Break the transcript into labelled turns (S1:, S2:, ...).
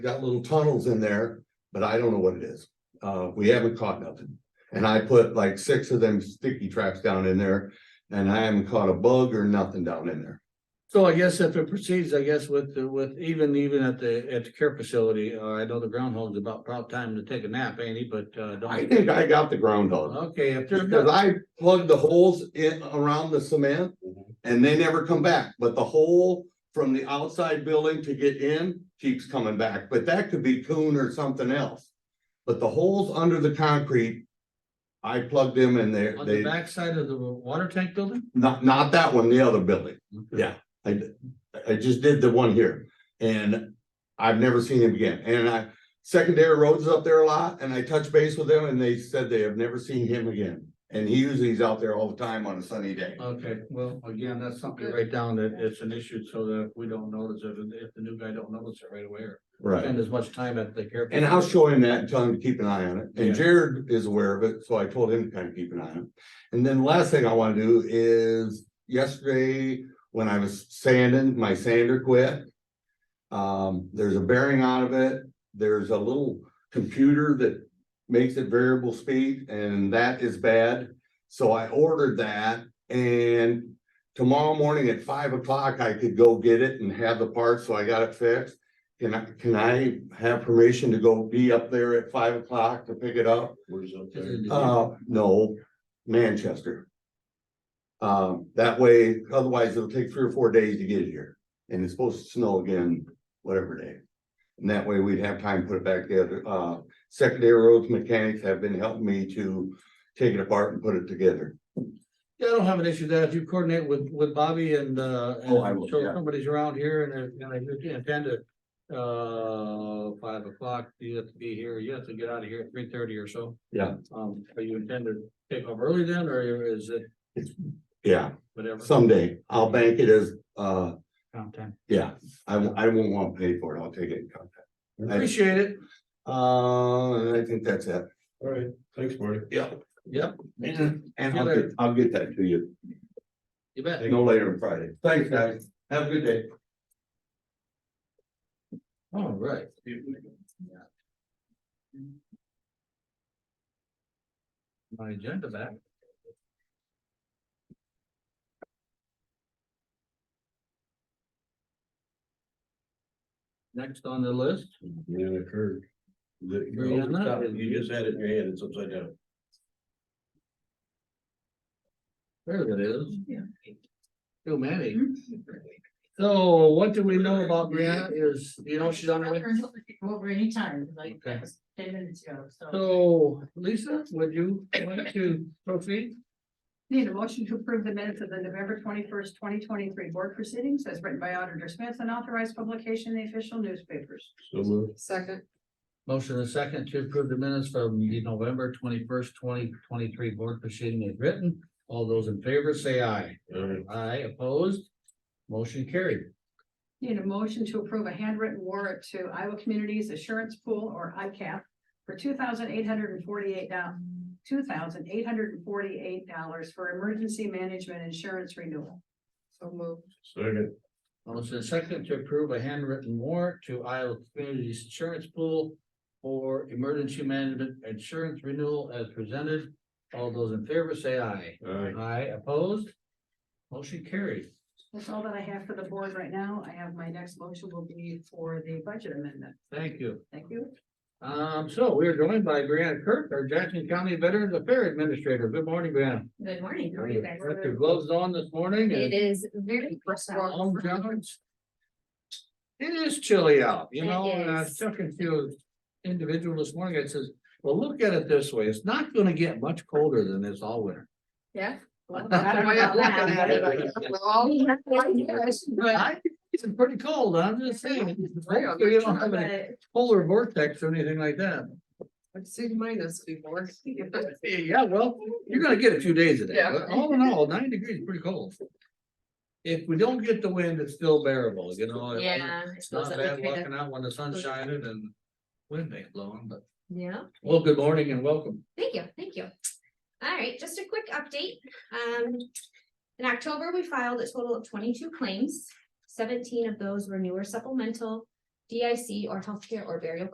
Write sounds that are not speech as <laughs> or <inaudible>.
S1: got little tunnels in there, but I don't know what it is. Uh, we haven't caught nothing. And I put like six of them sticky traps down in there and I haven't caught a bug or nothing down in there.
S2: So I guess if it proceeds, I guess with, the- with even, even at the, at the care facility, uh, I know the groundhog's about prob time to take a nap, Andy, but, uh,
S1: I
S2: don't.
S1: think I got the groundhog.
S2: Okay, if there's,
S1: Because
S2: no-
S1: I plugged the holes in around the cement
S2: Mm-hmm.
S1: and they never come back, but the hole from the outside building to get in keeps coming back, but that could be coon or something else. But the holes under the concrete, I plugged them and they,
S2: on the
S1: they,
S2: backside of the water tank building?
S1: not, not that one, the other building.
S2: Okay.
S1: Yeah, I, d- I just did the one here and I've never seen him again. And I, secondary roads is up there a lot and I touched base with them and they said they have never seen him again. And he usually is out there all the time on a sunny day.
S2: Okay, well, again, that's something to write down that it's an issue so that we don't notice it, and if the new guy don't notice it right away or
S1: Right.
S2: spend as much time at the care.
S1: And I'll show him that and tell him to keep an eye on it.
S2: Yeah.
S1: And Jared is aware of it, so I told him to kind of keep an eye on it. And then the last thing I want to do is yesterday, when I was sanding, my sander quit. Um, there's a bearing out of it. There's a little computer that makes it variable speed and that is bad. So I ordered that and tomorrow morning at five o'clock, I could go get it and have the parts, so I got it fixed. Can I, can I have permission to go be up there at five o'clock to pick it up?
S3: Where's up
S2: there? Is it-
S1: Uh, no, Manchester. Um, that way, otherwise it'll take three or four days to get it here, and it's supposed to snow again, whatever day. And that way we'd have time to put it back together. Uh, secondary roads mechanics have been helping me to take it apart and put it together.
S2: Yeah, I don't have an issue with that. If you coordinate with, with Bobby and, uh, and
S3: Oh, I will,
S2: so if
S3: yeah.
S2: somebody's around here and, if- and if you intend to, uh, five o'clock, you have to be here, you have to get out of here at three thirty or so.
S1: Yeah.
S2: Um, are you intend to take off early then, or is it
S1: Yeah,
S2: whatever?
S1: someday. I'll bank it as, uh,
S2: Around ten.
S1: yeah, I, won't- I won't want to pay for it. I'll take it in contact. I-
S2: Appreciate it.
S1: Uh, and I think that's it.
S3: All right, thanks, Marty.
S1: Yeah.
S2: Yep,
S1: And I'll
S2: Good.
S1: get, I'll get that to you.
S2: you bet.
S1: No later on Friday. Thanks, guys. Have a good day.
S2: All Oh, right. My agenda back. Next on the list,
S3: Yeah, it occurred. The-
S2: Were you on that?
S3: You just had it in your hand, it's upside down.
S2: there it is,
S4: Yeah.
S2: too many. So what do we know about Brianna is, you know, she's on her way.
S4: Over anytime, like,
S2: Okay.
S4: that was ten minutes ago, so.
S2: So Lisa, would you like to proceed?
S4: Need a motion to approve the minutes of the November twenty-first, twenty twenty-three board proceedings as written by Auditor Smith and authorized publication in the official newspapers.
S3: So moved.
S4: Second.
S2: Motion and second to approve the minutes from the November twenty-first, twenty twenty-three board proceeding as written. All those in favor say aye.
S3: All right,
S2: Aye opposed. Motion carried.
S4: Need a motion to approve a handwritten warrant to Iowa Communities Assurance Pool or ICAP for two thousand eight hundred and forty-eight two thousand eight hundred and forty-eight dollars for emergency management insurance renewal. So moved.
S3: second,
S2: Motion and second to approve a handwritten warrant to Iowa Communities Insurance Pool for emergency management insurance renewal as presented. All those in favor say aye.
S3: all right,
S2: Aye opposed. Motion carried.
S4: That's all that I have for the board right now. I have my next motion will be for the budget amendment.
S2: Thank you.
S4: Thank you.
S2: Um, so we are joined by Brianna Kirk, our Jackson County Veterans Affairs Administrator. Good morning, Brianna.
S4: Good morning. How are you guys?
S2: Put your gloves on this morning
S5: It
S2: and
S5: is very.
S2: long
S5: personal.
S2: johns. It is chilly out, you
S5: It
S2: know, and I was
S5: is.
S2: talking to an individual this morning, I says, well, look at it this way, it's not gonna get much colder than this all winter.
S5: Yeah.
S4: Well, <laughs>
S2: <laughs>
S4: I don't know about that, but-
S2: I think It's pretty cold, I'm just saying, hopefully you don't have any
S4: But
S2: polar vortex or anything like that.
S5: I've seen minus before.
S2: <laughs> Yeah, well, you're gonna get a few days of that,
S5: Yeah.
S2: but all in all, nine degrees is pretty cold. If we don't get the wind, it's still bearable, you know. it-
S5: Yeah. I
S2: It's not
S5: suppose that
S2: bad
S5: would be the-
S2: walking out when the sun's shining and wind ain't blowing, but,
S5: Yeah,
S2: well, good morning and welcome.
S5: thank you, thank you. All right, just a quick update. Um, in October, we filed a total of twenty-two claims. Seventeen of those were newer supplemental DIC or healthcare or burial